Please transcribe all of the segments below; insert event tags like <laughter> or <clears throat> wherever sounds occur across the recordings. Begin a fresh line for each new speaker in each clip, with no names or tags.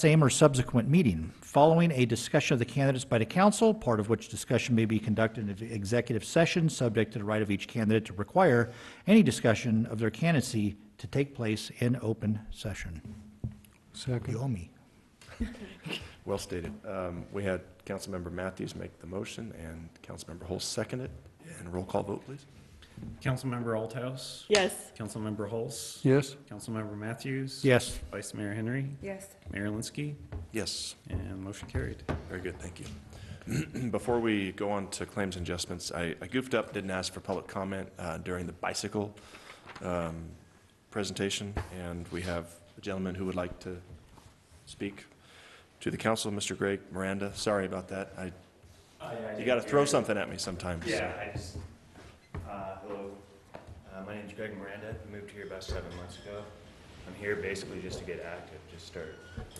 same or subsequent meeting, following a discussion of the candidates by the council, part of which discussion may be conducted in an executive session, subject to the right of each candidate to require any discussion of their candidacy to take place in open session.
Second.
You owe me.
Well stated. Um, We had Councilmember Matthews make the motion and Councilmember Hull second it. And roll call vote, please.
Councilmember Althouse.
Yes.
Councilmember Hulse.
Yes?
Councilmember Matthews.
Yes.
Vice Mayor Henry.
Yes.
Mayor Linsky.
Yes,
And motion carried.
very good, thank you. <clears throat> Before we go on to claims and adjustments, I I goofed up, didn't ask for public comment uh, during the bicycle um, presentation, and we have a gentleman who would like to speak to the council, Mr. Greg Miranda. Sorry about that. I,
Uh,
you got to throw something at me sometimes. so.
Yeah, I just, uh, hello, uh, my name's Greg Miranda, I moved here about seven months ago. I'm here basically just to get active, just start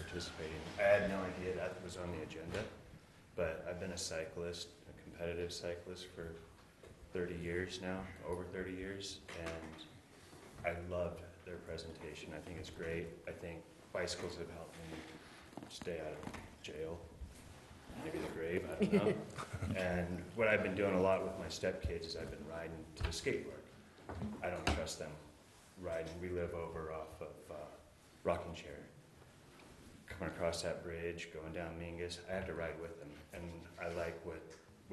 participating. I had no idea that was on the agenda, but I've been a cyclist, a competitive cyclist for thirty years now, over thirty years, and I loved their presentation, I think it's great. I think bicycles have helped me stay out of jail, maybe the grave, I don't know. And what I've been doing a lot with my stepkids is I've been riding to the skate park. I don't trust them riding. We live over off of uh, Rocking Chair. Coming across that bridge, going down Mingus, I have to ride with them. And I like what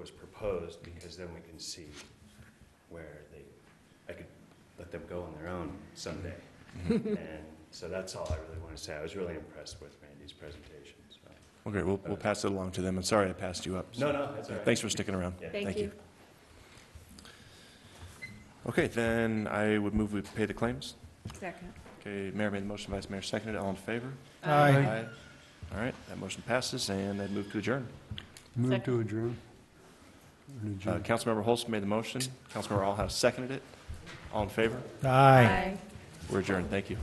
was proposed because then we can see where they, I could let them go on their own someday. And so that's all I really want to say. I was really impressed with Randy's presentation, so.
Okay, we'll, we'll pass it along to them, and sorry I passed you up. so-
No, no, that's all right.
Thanks for sticking around.
Yeah.
Thank you.
Okay, then I would move we pay the claims.
Second.
Okay, Mayor made the motion, Vice Mayor seconded, all in favor?
Aye.
All right, that motion passes, and I'd move to adjourn.
Move
Second.
to adjourn. An
Uh,
adjourn.
Councilmember Holst made the motion, Councilmember Alhouse seconded it, all in favor?
Aye.
We're adjourned, thank you.